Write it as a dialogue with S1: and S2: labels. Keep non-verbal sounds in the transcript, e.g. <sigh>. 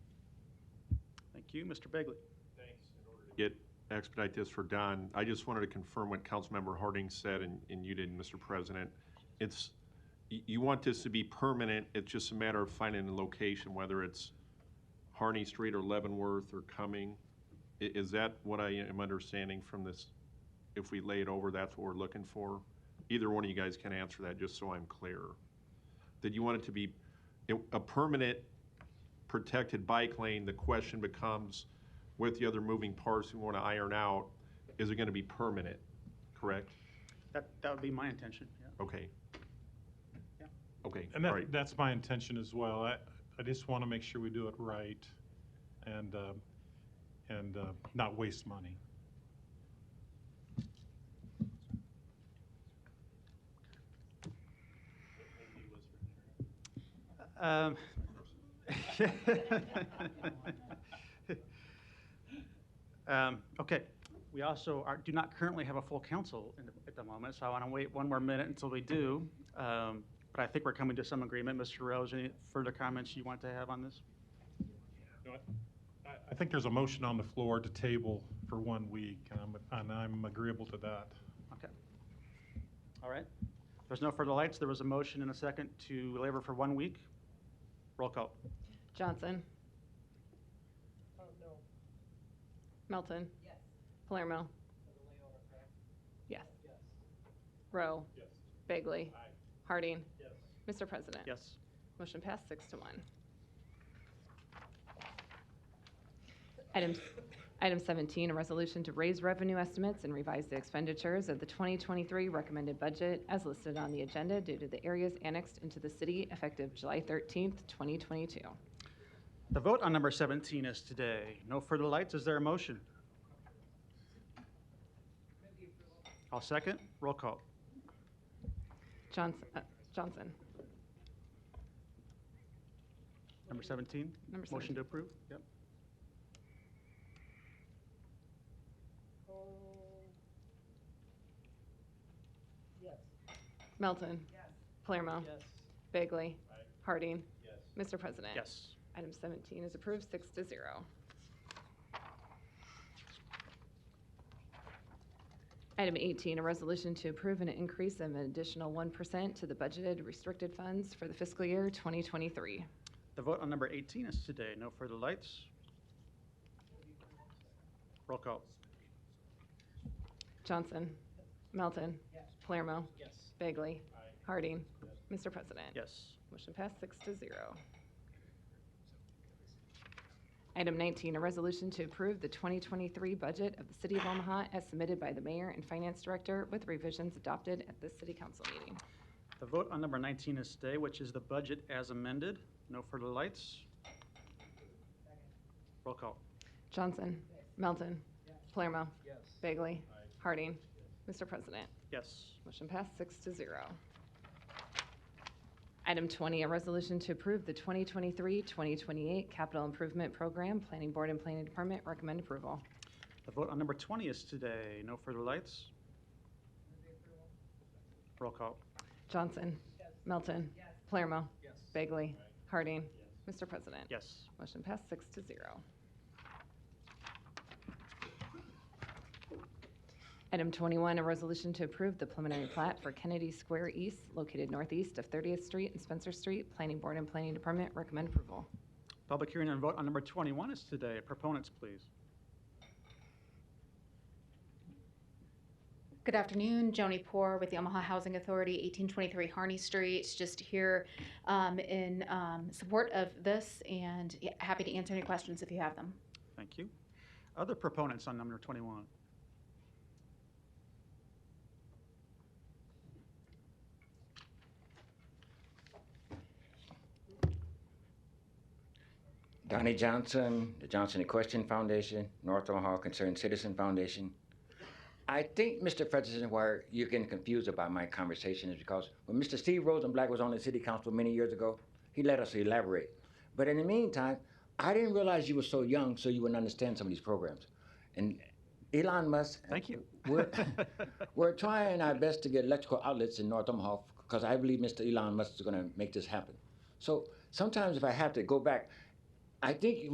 S1: Thank you, Mr. Begley.
S2: get, expedite this for Don, I just wanted to confirm what Councilmember Harding said, and, and you did, Mr. President. It's, you, you want this to be permanent, it's just a matter of finding the location, whether it's Harney Street or Leavenworth or Cumming. I- is that what I am understanding from this? If we lay it over, that's what we're looking for? Either one of you guys can answer that, just so I'm clear. Did you want it to be a- a permanent protected bike lane, the question becomes, with the other moving parts we want to iron out, is it going to be permanent, correct?
S1: That, that would be my intention, yeah.
S2: Okay.
S1: Yeah.
S2: Okay,
S3: And
S2: all right,
S3: that, that's my intention as well. I, I just want to make sure we do it right and, uh, and uh, not waste money.
S1: Um, Um, Okay, we also are, do not currently have a full council in the- at the moment, so I want to wait one more minute until we do. Um, But I think we're coming to some agreement. Mr. Rose, any further comments you want to have on this?
S3: No, I- I, I think there's a motion on the floor to table for one week, and I'm, and I'm agreeable to that.
S1: Okay. All right. There's no further lights. There was a motion and a second to labor for one week. Roll call.
S4: Johnson. Melton. Oh, Yes. Palermo. Yes. Rowe.
S3: Yes.
S4: Bagley.
S3: Aye.
S4: Harding.
S3: Yes.
S4: Mr. President.
S1: Yes.
S4: Motion passed six to one. Item, item 17, a resolution to raise revenue estimates and revise the expenditures of the 2023 recommended budget as listed on the agenda due to the areas annexed into the city effective July 13th, 2022.
S1: The vote on number 17 is today. No further lights. Is there a motion? I'll second. Roll call.
S4: Johnson, uh, Johnson.
S1: Number 17?
S4: Number
S1: Motion
S4: 17.
S1: to approve? Yep.
S4: Melton. Palermo. Bagley. Harding. Mr. President.
S1: Yes.
S4: Item 17 is approved, six to zero. Item 18, a resolution to approve an increase of an additional 1% to the budgeted restricted funds for the fiscal year 2023.
S1: The vote on number 18 is today. No further lights. Roll call.
S4: Johnson. Melton. Palermo. Bagley. Harding. Mr. President.
S1: Yes.
S4: Motion passed six to zero. Item 19, a resolution to approve the 2023 budget of the City of Omaha as submitted by the mayor and finance director with revisions adopted at this city council meeting.
S1: The vote on number 19 is today, which is the budget as amended. No further lights. Roll call.
S4: Johnson. Melton. Palermo. Bagley. Harding. Mr. President.
S1: Yes.
S4: Motion passed six to zero. Item 20, a resolution to approve the 2023-2028 capital improvement program. Planning Board and Planning Department recommend approval.
S1: The vote on number 20 is today. No further lights. Roll call.
S4: Johnson. Melton. Palermo. Bagley. Harding. Mr. President.
S1: Yes.
S4: Motion passed six to zero. Item 21, a resolution to approve the preliminary plat for Kennedy Square East, located northeast of 30th Street and Spencer Street. Planning Board and Planning Department recommend approval.
S1: Public hearing and vote on number 21 is today. Proponents, please.
S5: Good afternoon, Joni Poor with the Omaha Housing Authority, 1823 Harney Street. Just here um, in um, support of this and yeah, happy to answer any questions if you have them.
S1: Thank you. Other proponents on number 21?
S6: Donnie Johnson, the Johnson Equestrian Foundation, North Omaha Concerned Citizen Foundation. I think, Mr. President, where you're getting confused about my conversation is because when Mr. Steve Rosenblatt was on the city council many years ago, he let us elaborate. But in the meantime, I didn't realize you were so young, so you wouldn't understand some of these programs. And Elon Musk.
S1: Thank you.
S6: We're,
S1: <laughs>
S6: we're trying our best to get electrical outlets in North Omaha because I believe Mr. Elon Musk is going to make this happen. So sometimes if I have to go back, I think